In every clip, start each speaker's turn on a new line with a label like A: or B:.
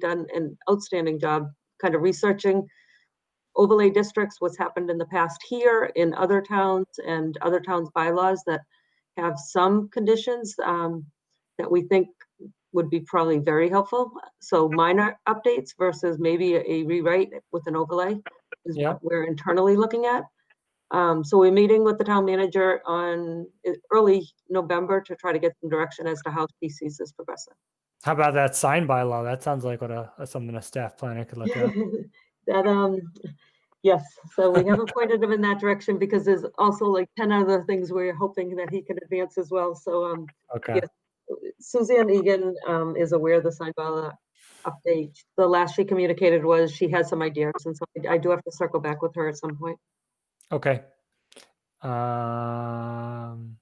A: done an outstanding job kind of researching overlay districts, what's happened in the past here in other towns and other towns' bylaws that have some conditions um, that we think would be probably very helpful. So minor updates versus maybe a rewrite with an overlay is
B: Yeah.
A: what we're internally looking at. Um, So we're meeting with the town manager on uh, early November to try to get some direction as to how he sees this progressing.
B: How about that sign bylaw? That sounds like what a, a something a staff planner could look at.
A: That, um, yes, so we haven't pointed him in that direction because there's also like ten other things we're hoping that he can advance as well. So, um,
B: Okay.
A: Suzanne Egan, um, is aware of the sign bylaw update. The last she communicated was she had some ideas, and so I- I do have to circle back with her at some point.
B: Okay. Um,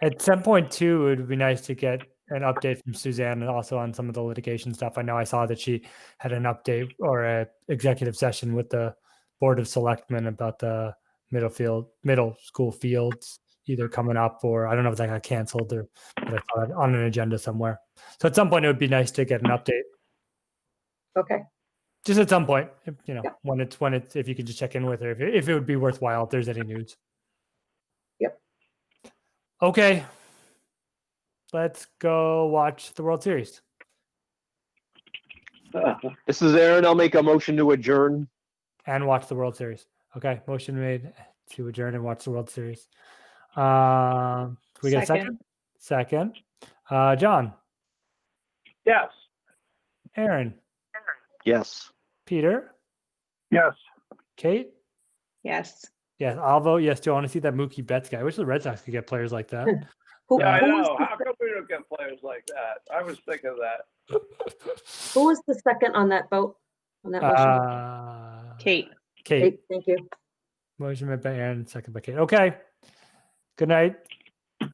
B: at some point too, it would be nice to get an update from Suzanne and also on some of the litigation stuff. I know I saw that she had an update or a executive session with the board of selectmen about the middle field, middle school fields either coming up or I don't know if that got canceled or but I saw it on an agenda somewhere. So at some point it would be nice to get an update.
A: Okay,
B: just at some point, if- you know,
A: Yep.
B: when it's when it's if you could just check in with her if it, if it would be worthwhile if there's any news.
A: Yep.
B: Okay. Let's go watch the World Series.
C: This is Aaron. I'll make a motion to adjourn.
B: and watch the World Series. Okay, motion made to adjourn and watch the World Series. Um, can we get a second? Second.
D: Second.
B: Uh, John,
E: Yes.
B: Aaron,
C: Yes.
B: Peter,
E: Yes.
B: Kate.
D: Yes.
B: Yes, I'll vote yes too. I want to see that Mookie Betts guy. I wish the Red Sox could get players like that.
A: who,
E: Yeah, I
A: who was
E: know.
A: the-
E: How come we don't get players like that? I was thinking of that.
A: who was the second on that vote? On that motion?
B: Uh,
D: Kate.
B: Kate.
A: Kate, Thank you.
B: Motion made by Aaron, second by Kate. Okay. Good night.